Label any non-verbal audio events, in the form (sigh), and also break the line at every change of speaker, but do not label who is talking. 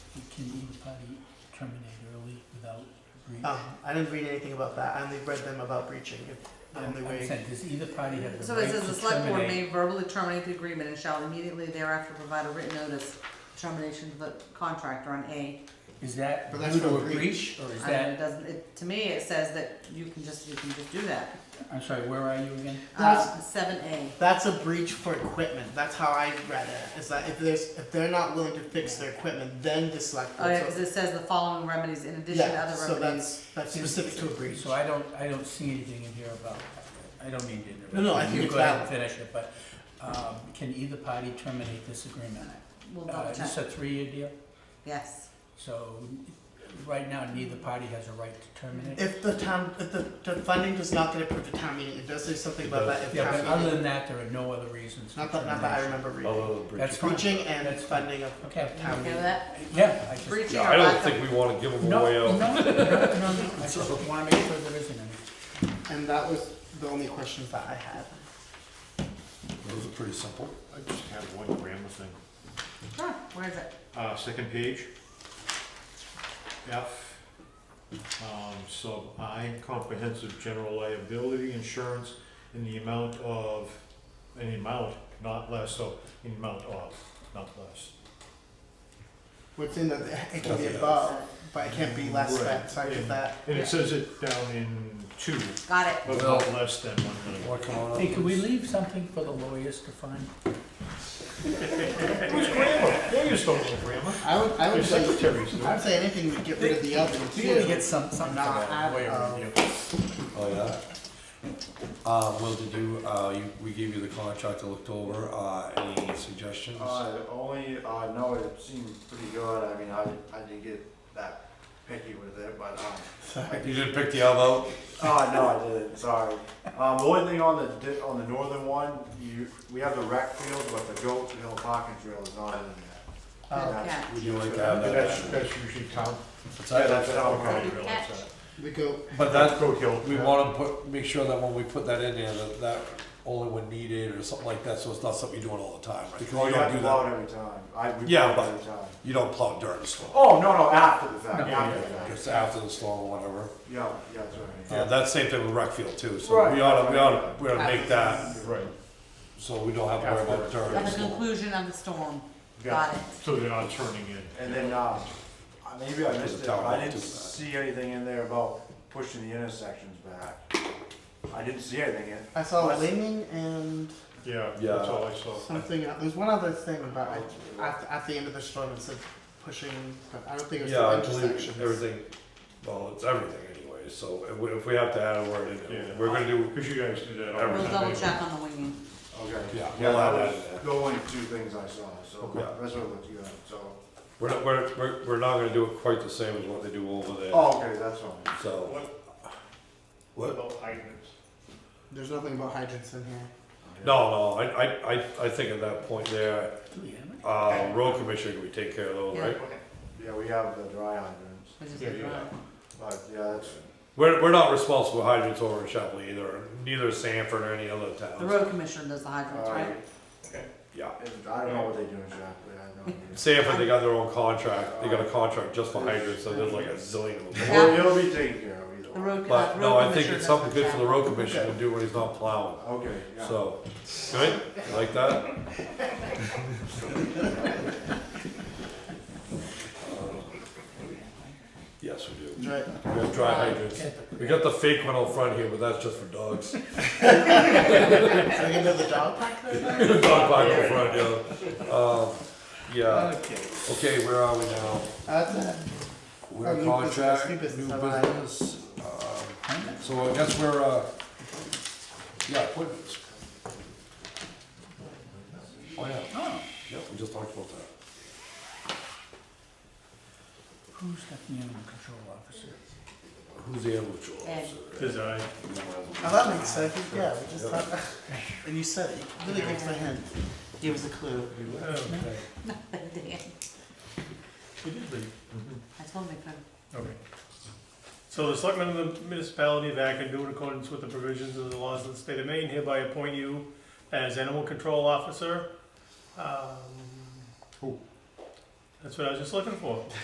didn't you probably terminate early without breach?
Oh, I didn't read anything about that. I only read them about breaching. If the
I'm-
only
Oh, I'm
way.
saying, does either party have the
So it
right
says the
to
select board
terminate?
may verbally terminate the agreement and shall immediately thereafter provide a written notice of termination of the contractor on A.
Is that
But that's
due to
not
a
breach,
breach, or is
I mean, it
that,
doesn't, it, to me, it says that you can just, you can just do that.
I'm sorry, where are you again?
Uh, seven A.
That's a breach for equipment. That's how I read it. Is that if there's if they're not willing to fix their equipment, then the select
Oh,
board.
yeah, cause it says the following remedies in addition to
yeah,
other
so
remedies.
that's that's specific to a breach.
So I don't, I don't see anything in here about, I don't mean to interrupt.
No, no, I
you.
think
You
it's
go ahead and
valid.
finish it, but, um, can either party terminate this agreement?
We'll
Uh,
double
Is
check,
this a three-year deal?
yes.
So, right now, neither party has a right to terminate?
If the town, if the, the funding does not get approved at town meeting, it does say something about that if
Yeah, but
town
other
meeting.
than that, there are no other reasons.
Not that, not that I remember reading.
Although the
That's
breach.
fine.
Breaching and
That's fine.
funding of
Okay.
town
Okay
meeting.
with that?
Yeah, I just.
Breaching or
Yeah, I don't
lack of-
think we wanna give them
No,
away uh,
no, (laughs)
out.
no, no, no, I just wanna make sure there isn't any.
And that was the only questions that I had.
Those are pretty simple.
I just have one grammar thing.
Huh, where is it?
Uh, second page. F, um, sub I, comprehensive general liability insurance in the amount of, an amount, not less, so in amount of, not less.
What's in the, it can be
Nothing
above, but it can't be less than,
Right.
so I get that.
And it says it down in two,
Got it.
but not less than one million.
Wanna come on up?
Hey, can we leave something for the lawyers to (laughs) find?
Who's grammar? Lawyers don't know grammar.
I would, I
They're
would say,
secretaries do.
I would say anything would get rid of the other
We gotta get
two.
some, something for
Not um,
the
at
lawyer
all.
review.
Oh, yeah? Uh, Will, did you, uh, you, we gave you the contract to look over, uh, any suggestions?
Uh, only, uh, no, it seemed pretty good, I mean, I, I didn't get that picky with it, but, um,
You didn't pick the elbow?
oh, no, I didn't, sorry. Um, the only thing on the, di- on the northern one, you, we have the rec field, but the goat hill parking trail is not in there.
Oh,
That's-
Yeah.
Would you like to have
That's,
that?
that's usually town.
What's
Yeah,
that?
that's how
Okay,
Good
realize
catch.
that.
We go,
But that,
Goat Hill.
we wanna put, make sure that when we put that in there, that, that only when needed or something like that, so it's not something you're doing all the time, right? Because
Well,
you
you
don't
have
do
to blow
that,
it every time, I, we blow
Yeah,
it
but-
every time.
you don't plow during the storm.
Oh, no, no, after the
No,
fact, after the
Yeah,
fact,
Just after the storm or whatever.
yeah, yeah, that's right.
Uh, that's same thing with rec field too, so
Right.
we oughta, we oughta, we oughta make that,
Right,
so we don't have to worry about it during
At
the
the
storm.
conclusion of the storm,
Yeah.
got it.
so they're not turning in.
And then, um, I- maybe I missed it,
Tower
but I
too,
didn't
uh,
see anything in there about pushing the intersections back. I didn't see anything in.
I saw
Unless-
leaning and
Yeah,
Yeah.
that's all I saw.
something, else. there's one other thing about, it. at, at the end of the storm, it said pushing, but I don't think it was
Yeah, I
the
believe
intersections.
everything, well, it's everything anyway, so if we, if we have to add a word in,
Yeah.
it, we're gonna do,
Because you guys do that all the time.
We'll double check on the winging.
Okay.
Yeah,
Yeah,
we'll add
that
that
was
in there.
the only two things I saw, so
Yeah.
that's what I looked at, so.
we're not, we're, we're, we're not gonna do it quite the same as what they do over there,
Oh, okay, that's fine.
so. What?
About hydrants.
There's nothing about hydrants in here.
No, no, I, I, I, I think at that point there,
Do we have it?
uh, road commissioner, we take care of those,
Yeah.
right?
Yeah, we have the dry hydrants,
Which is
Yeah,
good.
yeah.
right?
but yeah, that's,
We're, we're not responsible for hydrants over in Shepley either, neither is Sanford or any other
The
towns,
road commissioner does the hydrants,
uh,
right?
yeah.
and I don't know what they do exactly, I
(laughs)
don't. know.
Sanford, they got their own contract, they got a contract just for hydrants, so there's like a zillion
(laughs)
of them.
Well, it'll be taken care of either
The
way.
road. uh,
But no,
road
I think
commissioner does
it's something good for the
(laughs) traffic.
road commissioner to do when he's not plowing,
Okay, yeah.
so, good, You like that? Yes, we do.
Right.
We have dry hydrants. We got the fake one out front here, but that's just for dogs. (laughs)
Can I get another dog Uh, park there?
Dog park out front, yeah. Um, yeah,
Okay.
okay, where are we now?
That's it. Oh,
We're
new
contract, new
business, new business, alright.
business, um, so I guess we're, uh, yeah, appointments. Oh, yeah,
Oh,
yep, we just talked about that.
who's got the animal control officer?
Who's the animal control
Ed.
officer?
Because I,
Um,
Oh, that makes sense. Yeah, we just
Yeah.
talked. (laughs) And you said it. You really gave us a hint. Gave us a clue.
Okay.
Damn.
we did read.
I told him I couldn't.
Okay. So the selectmen of the municipality of Acton do in accordance with the provisions of the laws of the state of Maine hereby appoint you as animal control officer. Um,
Who?
That's what I was just looking for.